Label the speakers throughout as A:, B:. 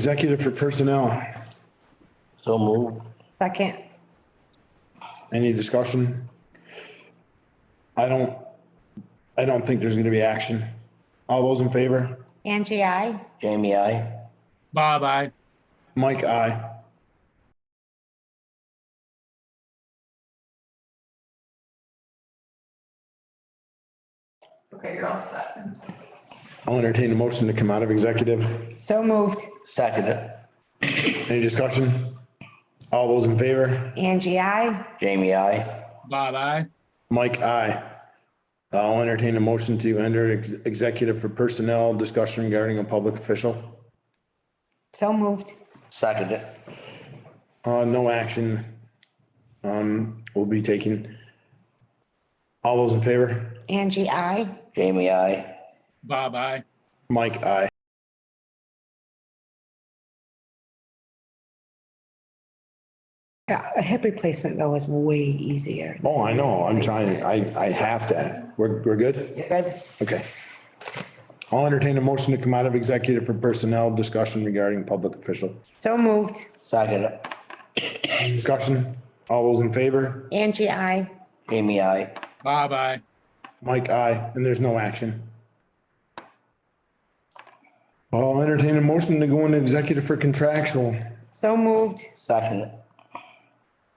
A: Executive for personnel.
B: So move.
C: Second.
A: Any discussion? I don't, I don't think there's gonna be action. All those in favor?
C: Angie, I.
B: Jamie, I.
D: Bob, I.
A: Mike, aye.
E: Okay, you're all set.
A: I'll entertain a motion to come out of executive.
C: So moved.
B: Second it.
A: Any discussion? All those in favor?
C: Angie, I.
B: Jamie, I.
D: Bob, I.
A: Mike, aye. I'll entertain a motion to enter ex- executive for personnel discussion regarding a public official.
C: So moved.
B: Second it.
A: Uh, no action, um, will be taken. All those in favor?
C: Angie, I.
B: Jamie, I.
D: Bob, I.
A: Mike, aye.
F: A hip replacement though is way easier.
A: Oh, I know, I'm trying, I, I have to. We're, we're good?
C: Good.
A: Okay. I'll entertain a motion to come out of executive for personnel discussion regarding public official.
C: So moved.
B: Second it.
A: Discussion, all those in favor?
C: Angie, I.
B: Jamie, I.
D: Bob, I.
A: Mike, aye, and there's no action. I'll entertain a motion to go into executive for contractual.
C: So moved.
B: Second it.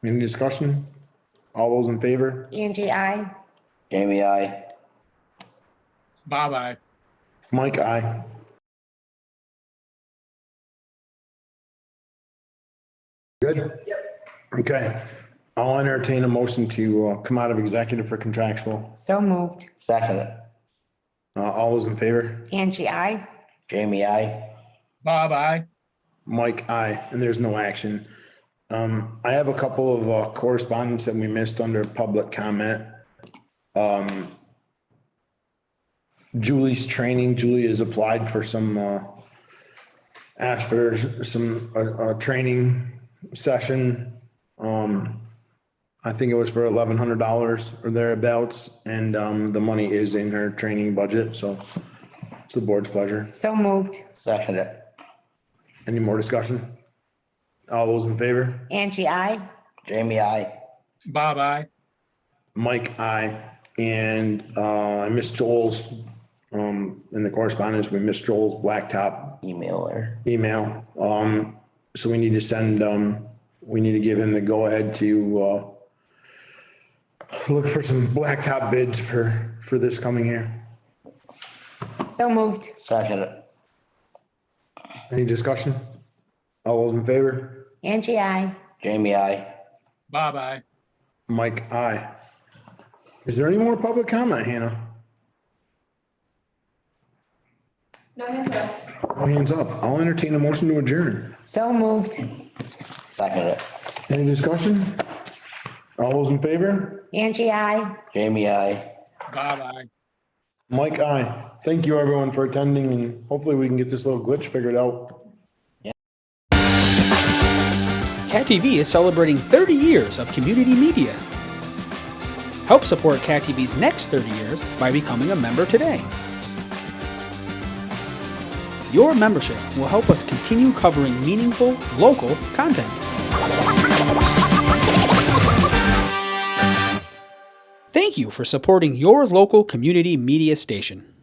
A: Any discussion? All those in favor?
C: Angie, I.
B: Jamie, I.
D: Bob, I.
A: Mike, aye. Good? Yep. Okay. I'll entertain a motion to uh, come out of executive for contractual.
C: So moved.
B: Second it.
A: Uh, All those in favor?
C: Angie, I.
B: Jamie, I.
D: Bob, I.
A: Mike, aye. And there's no action. Um, I have a couple of uh, correspondence that we missed under public comment. Um, Julie's training, Julie has applied for some, uh, asked for some, uh, uh, training session. Um, I think it was for eleven hundred dollars or thereabouts, and, um, the money is in her training budget, so it's the board's pleasure.
C: So moved.
B: Second it.
A: Any more discussion? All those in favor?
C: Angie, I.
B: Jamie, I.
D: Bob, I.
A: Mike, I, and uh, I missed Joel's, um, in the correspondence, we missed Joel's blacktop
B: Email her.
A: email. Um, so we need to send, um, we need to give him the go-ahead to, uh, look for some blacktop bids for, for this coming year.
C: So moved.
B: Second it.
A: Any discussion? All those in favor?
C: Angie, I.
B: Jamie, I.
D: Bob, I.
A: Mike, aye. Is there any more public comment, Hannah?
E: No hands up.
A: All hands up. I'll entertain a motion to adjourn.
C: So moved.
B: Second it.
A: Any discussion? All those in favor?
C: Angie, I.
B: Jamie, I.
D: Bob, I.
A: Mike, I Thank you everyone for attending and hopefully we can get this little glitch figured out.
G: Cat TV is celebrating 30 years of community media. Help support Cat TV's next 30 years by becoming a member today. Your membership will help us continue covering meaningful, local content. Thank you for supporting your local community media station.